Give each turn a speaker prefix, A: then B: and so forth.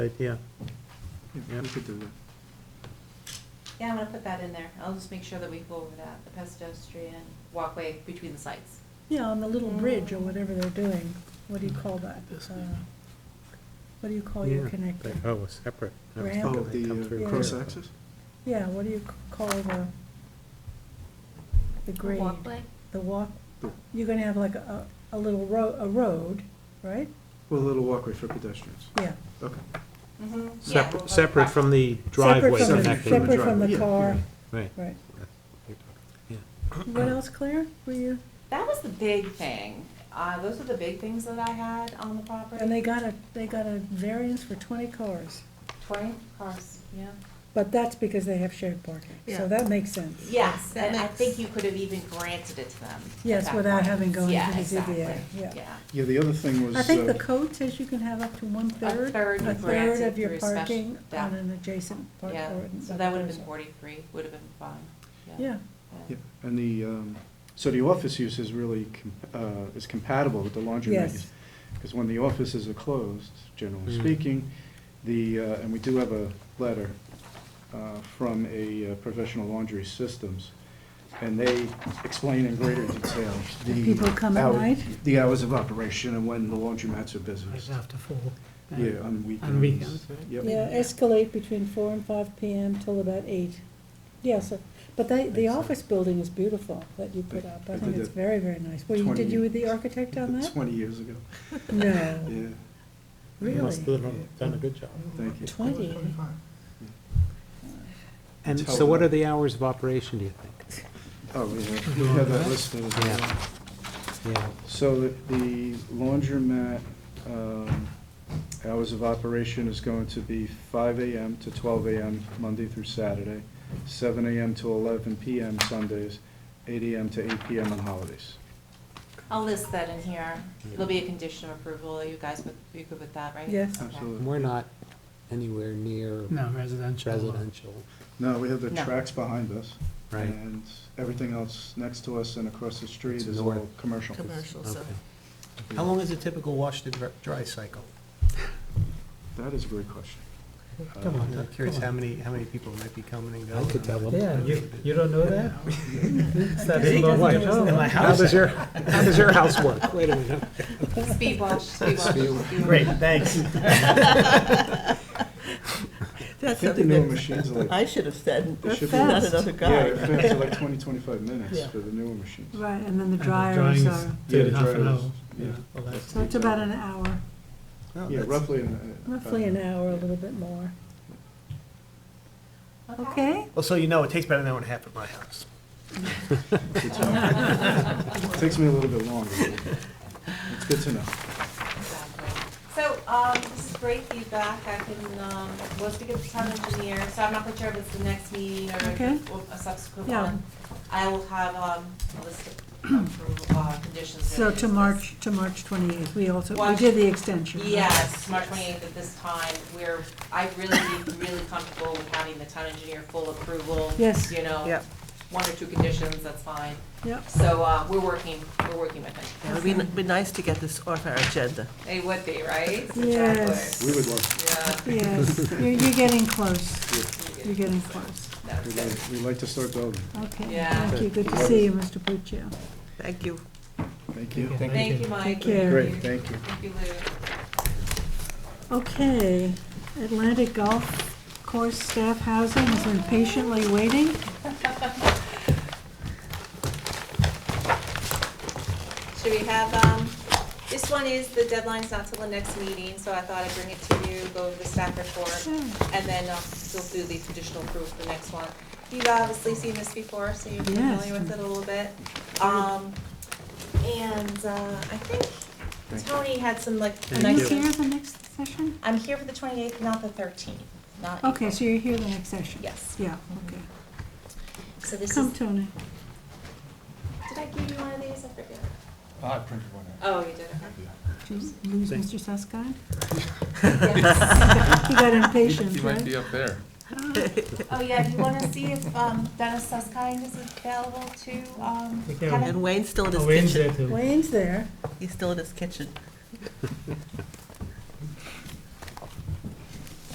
A: idea.
B: Yeah, we could do that.
C: Yeah, I'm gonna put that in there. I'll just make sure that we go over that, the pedestrian walkway between the sites.
D: Yeah, on the little bridge or whatever they're doing, what do you call that? Uh, What do you call your
A: Yeah,
D: connector?
A: but- Oh, it's separate. I was
D: Ramp.
A: thinking
B: Oh,
A: they come
B: the
A: through
B: uh,
D: Yeah.
B: cross
A: here.
B: access?
D: Yeah, what do you c- call the, the grade?
E: Walkway?
D: The walk,
B: The-
D: you're gonna have like a, a little ro, a road, right?
B: Well, a little walkway for pedestrians.
D: Yeah.
B: Okay.
C: Mm-hmm.
A: Separ- Separate from the driveway
D: Separate from the-
B: connecting.
A: connecting.
D: Separate from the
B: Yeah,
D: car,
A: Right.
D: right. What else, Claire, were you,
C: That was the big thing. Uh, those are the big things that I had on the property.
D: and they got a, they got a variance for twenty cars,
C: Twenty cars, yeah.
D: but that's because they have shared parking,
E: Yeah.
D: so that makes sense.
C: Yes,
E: That
C: and I
E: makes-
C: think you could have even granted it to them. at
D: Yes,
C: that
D: without
C: point.
D: having gone
C: Yeah,
D: to the ZBA,
C: exactly.
D: yeah.
F: Yeah, the other thing was,
D: I think the
F: uh,
D: code says you can have up to one-third.
C: third
D: a third
C: granted
D: of your
C: through special-
D: parking
C: yeah.
D: on an adjacent park or.
C: Yeah,
D: an
C: so that would have been
D: appraisal.
C: forty-three, would have been fine, yeah.
D: Yeah,
B: Yeah,
C: Yeah.
F: and the, um, so the office use is really, com- uh, is compatible with the laundromat
D: yes,
F: use. Because when the offices are closed, generally
A: Mm.
F: speaking, the, uh, and we do have a letter uh, from a uh, professional laundry systems, and they explain in greater detail the.
D: people come at
F: hour-
D: night?
F: The hours of operation and when the laundromats are busy.
G: after four.
F: Yeah, on weekends.
G: weekends, right?
F: Yep.
D: yeah, escalate between four and five PM till about eight. Yeah, so, but they, the
F: Thanks, sir.
D: office building is beautiful that you put
F: I-
D: up,
F: I
D: I think
F: did
D: it's
F: that
D: very, very nice. Were you, did
F: 20
D: you with the architect on that?
F: Twenty years ago,
D: No,
F: yeah,
A: They must
D: really?
A: have Done a good job.
F: thank you.
D: Twenty?
A: And
F: Tell
A: so what
F: them.
A: are the hours of operation, do you think?
F: Oh, yeah, we have that listed as well.
A: Yeah. Yeah,
F: So the- the laundromat um, hours of operation is going to be five AM to twelve AM, Monday through Saturday, seven AM to eleven PM Sundays, eight AM to eight PM on holidays.
C: I'll list that in here. It'll be a condition of approval. You guys, would- you good with that, right?
D: Yes.
C: Okay.
F: Absolutely.
A: and we're not anywhere near
G: No, residential.
A: residential,
F: No, we have the
C: No.
F: tracks behind us,
A: right?
F: and everything else next to us and across the street
A: To
F: is
A: the
F: all
A: north.
F: commercial.
E: Commercial, so.
A: Okay.
H: How long is a typical wash to dr- dry cycle?
F: That is a great question.
G: Come
F: Uh,
G: on.
H: I'm curious how many, how many people might be coming and
A: I
H: going.
A: could tell them.
G: Yeah, you, you don't know that? It's that
D: He
G: big of
D: doesn't
G: a-
D: know.
G: in my
A: How
G: house.
A: does your, how does your house work? Wait a minute.
C: Speed wash, speed wash.
A: Speed
G: Great, thanks.
F: I think the newer machines are like,
E: I should have said,
F: they should be.
E: not another
F: Yeah,
E: guy.
F: it fans are like twenty, twenty-five minutes
G: Yeah.
F: for the newer machines.
D: Right, and then the
G: And the drying's
D: dryers are,
F: Yeah,
G: Two
F: the
G: and a half an
F: drivers,
G: hour.
F: yeah.
G: Yeah, well, that's-
D: so it's about an hour,
H: Oh,
F: Yeah,
H: that's-
F: roughly an. uh,
D: roughly an
F: uh,
D: hour, a little bit more,
C: Okay.
D: okay?
H: Well, so you know, it takes about an hour and a half at my house.
F: it's hour. Takes me a little bit longer. but It's good to know.
C: Exactly. So, um, this is great feedback, I can, um, we'll speak with the town engineer, so I'm not quite sure if it's the next meeting or if
D: Okay.
C: it's a subsequent
D: Yeah.
C: one. I will have, um, a list of approval, uh, conditions.
D: So
C: related
D: to
C: this.
D: March, to March twenty-eighth, we also, we
C: Watch-
D: did the extension. right?
C: Yes, March twenty-eighth at this time, we're, I really, be really comfortable with having the town engineer full approval.
D: Yes.
C: You know?
E: Yep.
C: One or two conditions, that's fine,
D: Yep,
C: so, uh, we're working, we're working with him,
E: It would be, be nice to get this off our agenda.
C: they would be, right?
D: Yes.
F: We would love,
C: Exactly.
D: yes, you're, you're getting close,
C: Yeah.
D: you're getting close.
C: That was
F: we'd
C: good.
F: like, we'd like to start building.
D: Okay,
C: Yeah.
D: thank you, good to see you, Mr. Puccio.
E: Thank you.
F: Thank you.
C: Thank you, Mike.
D: Take care.
F: Great, thank you.
C: Thank you, Lou.
D: Okay, Atlantic Golf Course Staff Housing is impatiently waiting.
C: Should we have, um, this one is, the deadline's not till the next meeting, so I thought I'd bring it to you, go over the staff report,
D: Sure.
C: and then uh, we'll do the conditional proof for the next one. You've obviously seen this before, so you're
D: Yes.
C: familiar with it a little bit. Um, and, uh, I think
F: Thank you.
C: Tony had some like
D: Are you
C: nice.
D: here the next session?
C: I'm here for the twenty-eighth, not the thirteenth, not.
D: Okay,
C: April.
D: so you're here the next session?
C: Yes.
D: Yeah, okay.
C: So this is,
D: Come,
C: did
D: Tony.
C: I give you one of these? I forget.
F: I printed one out.
C: Oh, you did, okay.
D: Did you lose Mr. Susskind?
C: Yes.
D: He got impatient,
I: He might
D: right? Ah,
I: be up there.
C: Oh, yeah, do you want to see if um, Dennis Suskind is available to um,
G: Take care of
C: Kevin?
E: And Wayne's still in
G: Oh,
E: his
G: Wayne's
E: kitchen.
G: there too.
D: Wayne's there.
E: He's still in his kitchen.